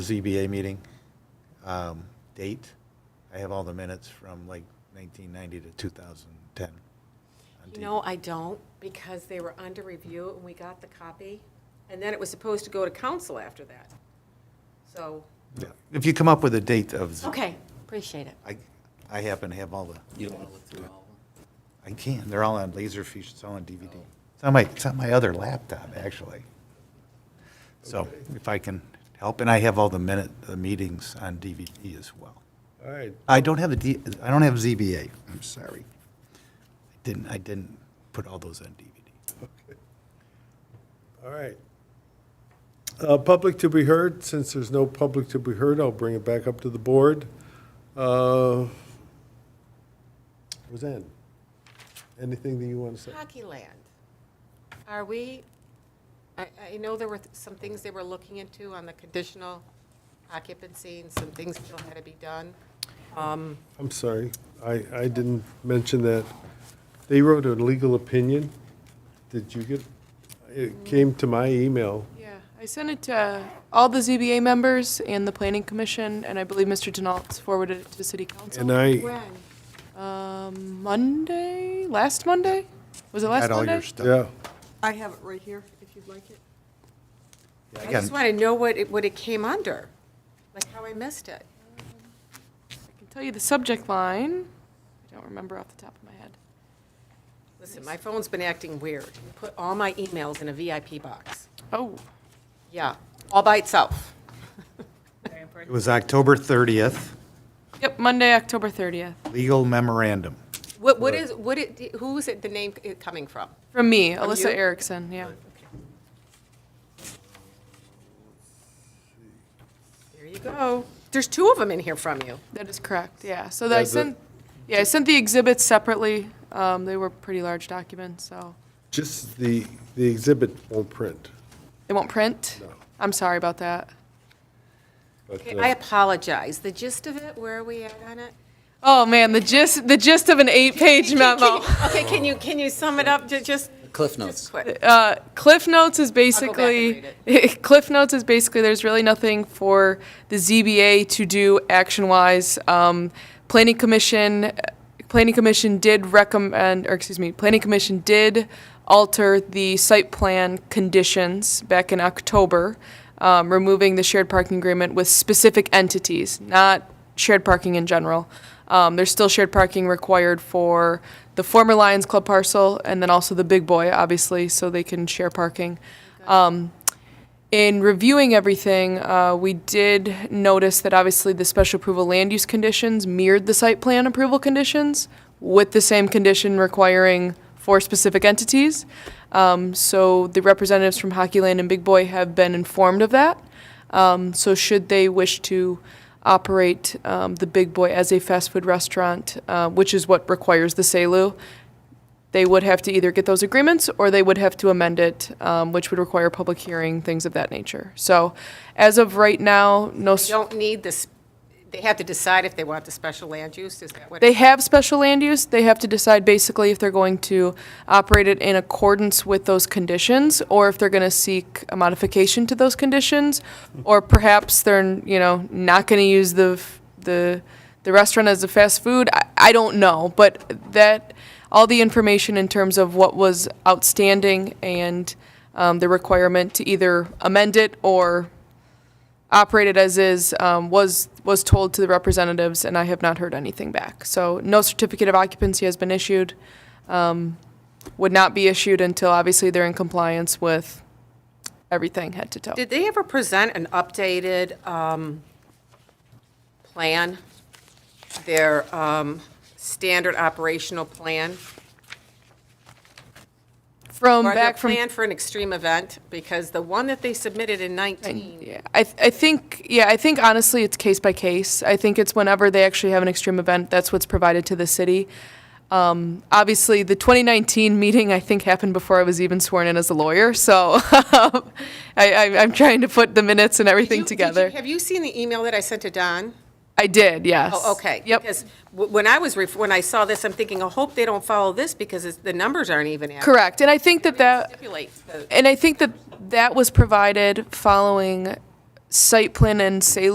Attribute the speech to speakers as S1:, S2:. S1: ZBA meeting um, date. I have all the minutes from like 1990 to 2010. on
S2: You
S1: tape.
S2: know, I don't, because they were under review, and we got the copy, and then it was supposed to go to council after that. So,
S1: Yeah. If you come up with a date of, z-
S2: okay, appreciate it.
S1: I, I happen to have all the,
S3: You don't want to look through all of
S1: I can, they're all on Laserfish, it's all on DVD. It's on my, it's on my other laptop, actually. So if I can help, and I have all the minute, the meetings on DVD as well.
S4: All right,
S1: I don't have the, D- I don't have ZBA, I'm sorry. I Didn't, I didn't put all those on DVD.
S4: all right. Uh, Public to be heard, since there's no public to be heard, I'll bring it back up to the board. Uh, Roseanne, anything that you want to say?
S2: Hockey land, are we, I, I know there were th- some things they were looking into on the conditional occupancy, and some things still had to be done. Um,
S4: I'm sorry, I, I didn't mention that. They wrote a legal opinion. Did you get, it came to my email.
S5: Yeah, I sent it to uh, all the ZBA members and the planning commission, and I believe Mr. Denault's forwarded it to city
S4: And uh,
S5: council.
S4: I,
S2: When?
S5: Um, Monday, last Monday? Was it last
S1: Had all your
S5: Monday?
S1: stuff.
S4: yeah,
S6: I have it right here, if you'd like it.
S1: Yeah,
S2: I
S1: got
S2: just
S1: it.
S2: want to know what it, what it came under, like how I missed it.
S5: I can tell you the subject line. I don't remember off the top of my head.
S2: Listen, my phone's been acting weird. Put all my emails in a VIP box.
S5: Oh,
S2: Yeah, all by itself.
S1: It was October 30th,
S5: yep, Monday, October 30th.
S1: legal memorandum.
S2: What, what is, what it, who is it, the name it coming from?
S5: From me,
S2: From you?
S5: Alyssa Erickson, yeah.
S2: There you go. There's two of them in here from you.
S5: That is correct, yeah. So that I
S4: That's it.
S5: sent, yeah, I sent the exhibits separately. Um, they were pretty large documents, so.
S4: just the, the exhibit won't print.
S5: They won't print? I'm sorry about that.
S4: but,
S2: Okay,
S4: uh,
S2: I apologize. The gist of it, where are we at on it?
S5: Oh, man, the gist, the gist of an eight-page memo.
S2: Okay, can you, can you sum it up to just,
S3: them. Cliff
S2: just
S3: notes.
S2: quick?
S5: Uh, Cliff Notes is
S2: and
S5: basically, Cliff Notes is basically, there's really nothing for the ZBA to do action-wise. Um, Planning Commission, Planning Commission did recommend, or excuse me, Planning Commission did alter the site plan conditions back in October, um, removing the shared parking agreement with specific entities, not shared parking in general. Um, there's still shared parking required for the former Lions Club parcel and then also the Big Boy, obviously, so they can share parking. Um, in reviewing everything, uh, we did notice that obviously the special approval land use conditions mirrored the site plan approval conditions with the same condition requiring four specific entities. Um, so the representatives from Hockey Land and Big Boy have been informed of that. Um, so should they wish to operate um, the Big Boy as a fast food restaurant, uh, which is what requires the SALU, they would have to either get those agreements or they would have to amend it, um, which would require public hearing, things of that nature. So as of right now, no, s-
S2: You don't need this, they have to decide if they want the special land use, is that what?
S5: they have special land use. They have to decide basically if they're going to operate it in accordance with those conditions or if they're going to seek a modification to those conditions. Or perhaps they're, you know, not going to use the, f- the, the restaurant as a fast food. I, I don't know, but that, all the information in terms of what was outstanding and um, the requirement to either amend it or operate it as is um, was was told to the representatives, and I have not heard anything back. So no certificate of occupancy has been issued. Um, would not be issued until obviously they're in compliance with everything head to toe.
S2: Did they ever present an updated um, plan? Their um, standard operational plan?
S5: from
S2: Or their
S5: back from
S2: plan for an extreme event? Because the one that they submitted in 19
S5: Yeah, I, th- I think, yeah, I think honestly, it's case by case. I think it's whenever they actually have an extreme event, that's what's provided to the city. Um, obviously, the 2019 meeting, I think, happened before I was even sworn in as a lawyer, so I, I, I'm trying to put the minutes and
S2: Did
S5: everything
S2: you- did you-
S5: together.
S2: Have you seen the email that I sent to Don?
S5: I did, yes.
S2: Oh, okay.
S5: Yep.
S2: Because w- when I was, ref- when I saw this, I'm thinking, I hope they don't follow this because it's- the numbers aren't even accurate.
S5: Correct, and I think that that.
S2: Stipulates the-
S5: and I think that that was provided following site plan and say